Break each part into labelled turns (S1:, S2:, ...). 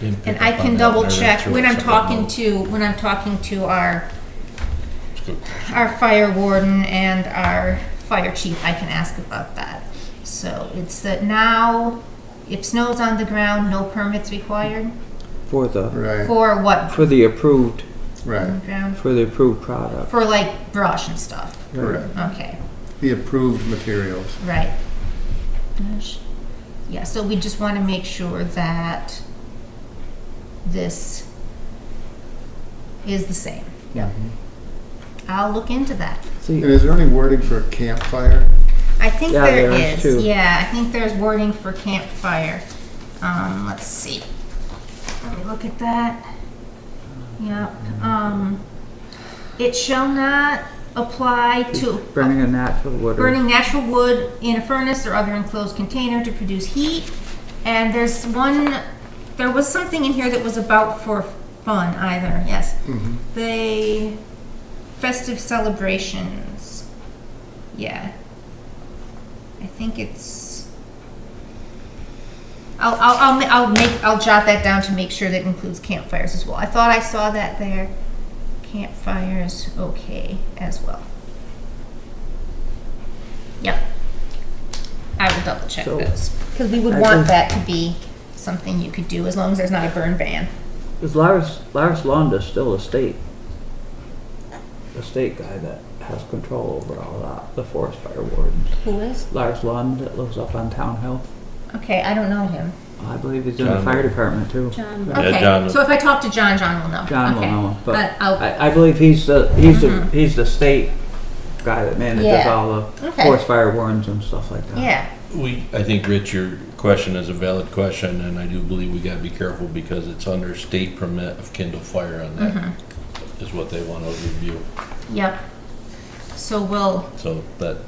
S1: didn't pick
S2: And
S1: up
S2: I
S1: on
S2: can
S1: that
S2: double
S1: read
S2: check
S1: through
S2: when
S1: it,
S2: I'm
S1: so I
S2: talking
S1: know.
S2: to, when I'm talking to our,
S3: It's good.
S2: our fire warden and our fire chief, I can ask about that. So it's that now, if snow's on the ground, no permits required
S4: for the,
S5: Right,
S2: for what?
S4: for the approved,
S5: right,
S2: ground?
S4: for the approved product.
S2: For like brush and stuff.
S4: right?
S5: correct.
S2: Okay,
S5: The approved materials.
S2: right. Brush. Yeah, so we just want to make sure that this is the same.
S5: Yeah.
S2: I'll look into that.
S5: And
S4: See,
S5: is there any wording for a campfire?
S2: I think
S4: Yeah,
S2: there
S4: there is
S2: is.
S4: too.
S2: Yeah, I think there's wording for campfire. Um, let's see. Let me look at that. Yep. Um, it shall not apply to
S4: burning a natural wood. or-
S2: burning natural wood in a furnace or other enclosed container to produce heat. And there's one, there was something in here that was about for fun either, yes.
S5: Mm-hmm.
S2: They, festive celebrations, yeah. I think it's, I'll, I'll, I'll, ma- I'll make, I'll jot that down to make sure that includes campfires as well. I thought I saw that there. Campfires, okay, as well. Yep. I will double check
S4: So-
S2: those, because we would
S4: I
S2: want
S4: think-
S2: that to be something you could do, as long as there's not a burn ban.
S4: Is Lars, Lars Londa's still a state? A state guy that has control over all that, the forest fire wardens.
S2: Who is?
S4: Lars Lond that lives up on Town Hill.
S2: Okay, I don't know him.
S4: I believe he's in the
S3: John.
S4: fire department too.
S6: John.
S3: Yeah,
S2: Okay,
S3: John-
S2: so if I talk to John, John will know.
S4: John will
S2: Okay.
S4: know, but
S2: I'll,
S4: I, I believe he's the, he's the, he's the state guy that manages
S2: Mm-hmm. Yeah.
S4: all the
S2: Okay.
S4: forest fire wardens and stuff like that.
S2: yeah,
S3: We, I think, Rich, your question is a valid question, and I do believe we gotta be careful because it's under state permit of Kindle Fire on that,
S2: Mm-hmm.
S3: is what they want to review.
S2: yep. So we'll,
S3: So that,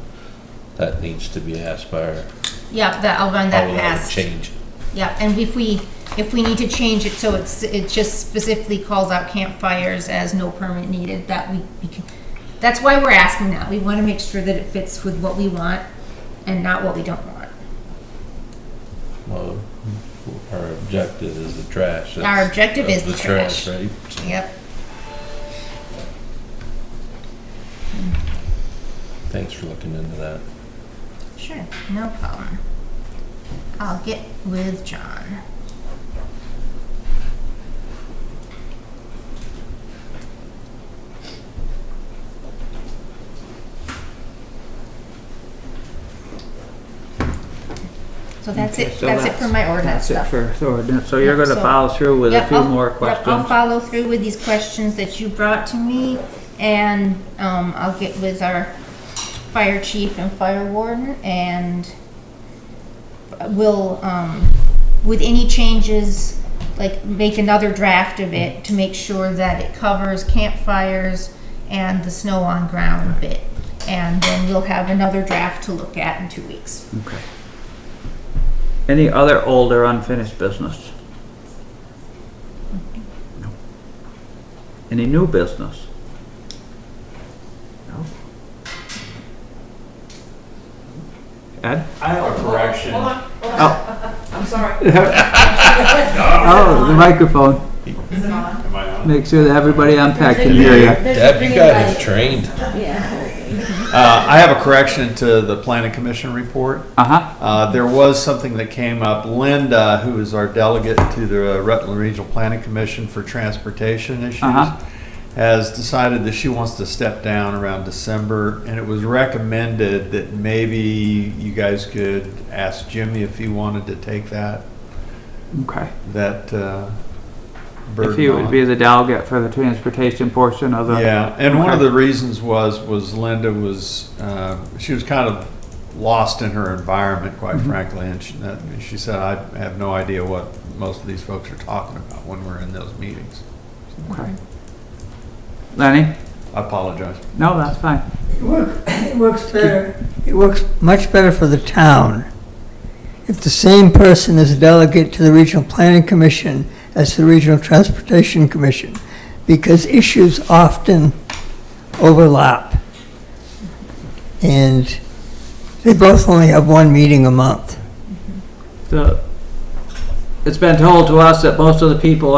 S3: that needs to be asked by our,
S2: yep, that, I'll run
S3: how
S2: that
S3: will that
S2: past.
S3: uh, change?
S2: Yeah, and if we, if we need to change it so it's, it just specifically calls out campfires as no permit needed, that we, we can, that's why we're asking that. We want to make sure that it fits with what we want and not what we don't want.
S3: Well, our objective is the trash.
S2: Our
S3: That's-
S2: objective is
S3: of
S2: the trash.
S3: Right?
S2: Yep.
S3: Thanks for looking into that.
S2: Sure, no problem. I'll get with John. So that's
S4: Okay,
S2: it,
S4: so
S2: that's it for my ordinance
S4: That's it
S2: stuff.
S4: for, so we're done. so you're
S2: Yep,
S4: gonna
S2: so-
S4: follow through with a
S2: Yep,
S4: few
S2: I'll-
S4: more
S2: yep, I'll
S4: questions?
S2: follow through with these questions that you brought to me, and um, I'll get with our fire chief and fire warden, and we'll, um, with any changes, like, make another draft of it to make sure that it covers campfires and the snow on ground bit. And then we'll have another draft to look at in two weeks.
S4: Okay. Any other old or unfinished business? No. Any new business? No. Ed?
S7: I have a correction.
S6: I'm sorry.
S4: Oh, the microphone.
S6: Is it on?
S7: Am I on?
S4: Make sure that everybody on PAC can hear you.
S6: There's a
S3: Deb, you
S6: green
S3: got
S6: light.
S3: trained.
S6: Yeah.
S7: Uh, I have a correction to the planning commission report.
S4: Uh-huh.
S7: Uh, there was something that came up. Linda, who is our delegate to the Rutland Regional Planning Commission for Transportation Issues,
S4: Uh-huh.
S7: has decided that she wants to step down around December, and it was recommended that maybe you guys could ask Jimmy if he wanted to take that,
S4: Okay.
S7: that, uh, burden
S4: If you would
S7: on.
S4: be the delegate for the transportation portion of the.
S7: Yeah, and one of
S4: Okay.
S7: the reasons was, was Linda was, uh, she was kind of lost in her environment, quite frankly, and she, that- she said, I have no idea what most of these folks are talking about when we're in those meetings.
S4: Okay. Lenny?
S7: I apologize.
S4: No, that's fine.
S8: It work- it works better, it works much better for the town if the same person is a delegate to the Regional Planning Commission as the Regional Transportation Commission, because issues often overlap. And they both only have one meeting a month.
S4: The, it's been told to us that most of the people